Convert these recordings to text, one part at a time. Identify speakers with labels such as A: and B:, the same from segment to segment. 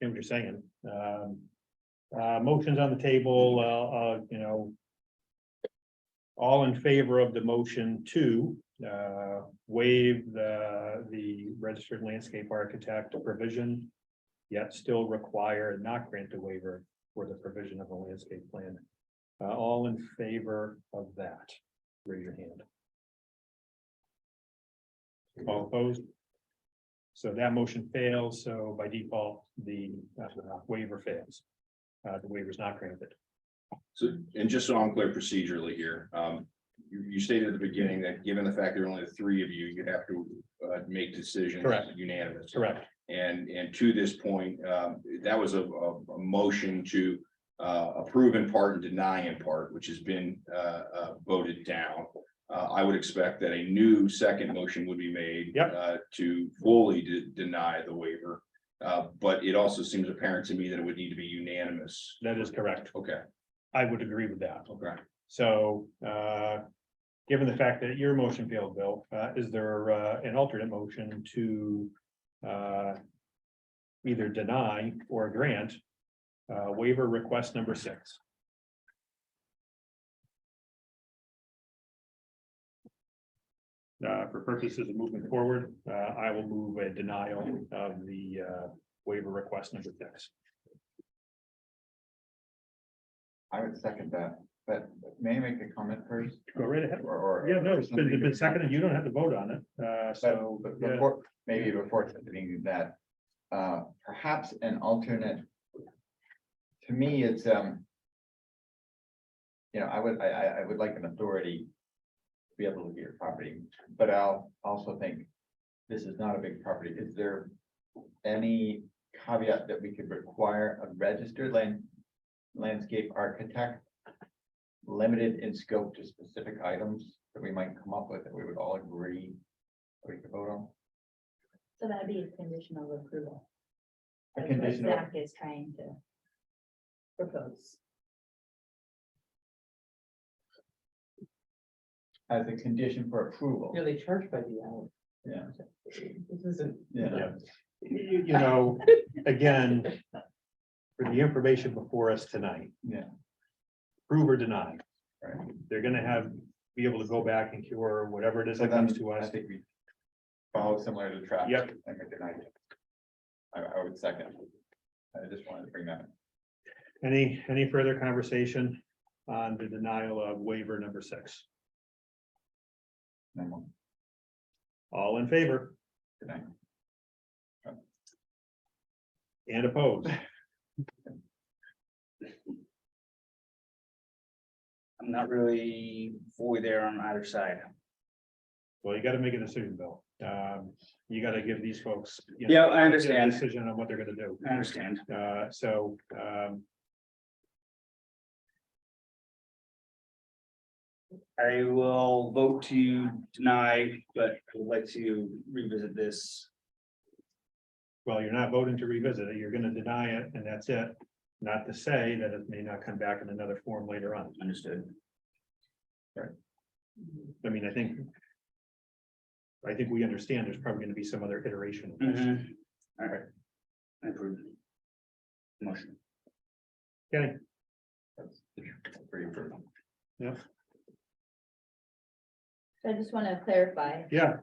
A: hear what you're saying. Um, uh, motions on the table, uh, uh, you know. All in favor of the motion to, uh, waive the, the registered landscape architect provision. Yet still require and not grant a waiver for the provision of a landscape plan. Uh, all in favor of that, raise your hand. All opposed? So that motion fails, so by default, the uh, waiver fails. Uh, the waiver is not granted.
B: So, and just so I'm clear procedurally here, um, you, you stated at the beginning that given the fact there are only three of you, you have to, uh, make decisions.
A: Correct.
B: Unanimous.
A: Correct.
B: And, and to this point, um, that was a, a, a motion to, uh, approve in part and deny in part, which has been, uh, uh, voted down. Uh, I would expect that a new second motion would be made.
A: Yep.
B: Uh, to fully de- deny the waiver. Uh, but it also seems apparent to me that it would need to be unanimous.
A: That is correct.
B: Okay,
A: I would agree with that.
B: okay.
A: So, uh, given the fact that your motion failed, Bill, uh, is there, uh, an alternate motion to, uh, either deny or grant, uh, waiver request number six? Uh, for purposes of moving forward, uh, I will move a denial of the, uh, waiver request number six.
C: I would second that, but may I make a comment first?
A: Go right ahead.
C: Or- or-
A: Yeah, no, it's been, it's been seconded. You don't have to vote on it, uh, so.
C: But
A: yeah.
C: before, maybe before something that, uh, perhaps an alternate. To me, it's, um. You know, I would, I, I, I would like an authority. to Be able to get your property, but I'll also think, this is not a big property, is there? Any caveat that we could require a registered land, landscape architect? Limited in scope to specific items that we might come up with that we would all agree we could vote on.
D: So that'd be a conditional approval.
C: A
D: That's what
C: conditional-
D: Zach is trying to propose.
C: As a condition for approval.
E: Yeah, they charge by the hour.
C: Yeah.
E: This isn't,
A: Yeah. You, you know, again, for the information before us tonight.
C: Yeah.
A: Prove or deny,
C: Right.
A: they're gonna have, be able to go back and cure whatever it is that comes to
C: I
A: us.
C: think we follow similar to traffic.
A: Yep.
C: I, I would second. I just wanted to bring that.
A: Any, any further conversation on the denial of waiver number six?
C: in.
A: All in favor
C: Tonight.
A: and opposed?
F: I'm not really fully there on either side.
A: Well, you gotta make a decision, Bill. Um, you gotta give these folks. you know,
F: Yeah, I
A: a
F: understand,
A: Decision on what they're gonna do.
F: I understand.
A: Uh, so, um,
F: I will vote to deny, but I would like to revisit this.
A: well, you're not voting to revisit it, you're gonna deny it, and that's it. Not to say that it may not come back in another form later on.
F: Understood.
A: I mean, I think. I think we understand there's probably gonna be some other iteration. of this.
F: Mhm. All right. I approve. Motion.
A: Okay,
C: For your approval.
D: So I just want to clarify,
A: yeah,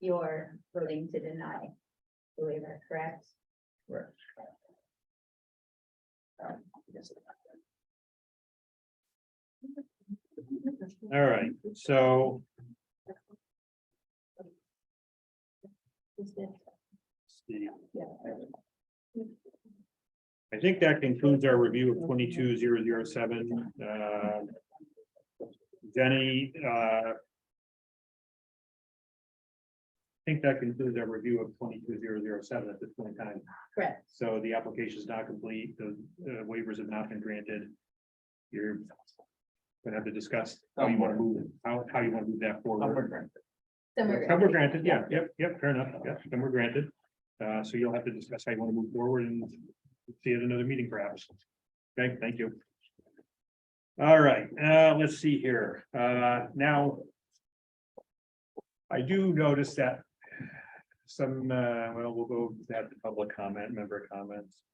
D: you're voting to deny the waiver, correct?
F: Yes.
A: all right, so, I think that concludes our review of twenty-two zero zero seven, uh. Jenny, uh. I think that concludes our review of twenty-two zero zero seven at this point in time.
D: Correct.
A: So the application is not complete, the uh, waivers have not been granted. You're gonna have to discuss how you wanna move, how, how you wanna move that forward.
D: Some are
A: Some were granted, yeah, yep, yep, fair enough, yep, some were granted. Uh, so you'll have to discuss how you wanna move forward and see at another meeting perhaps. Okay, thank you. All right, uh, let's see here, uh, now. I do notice that some, uh, well, we'll go to that public comment, member comments.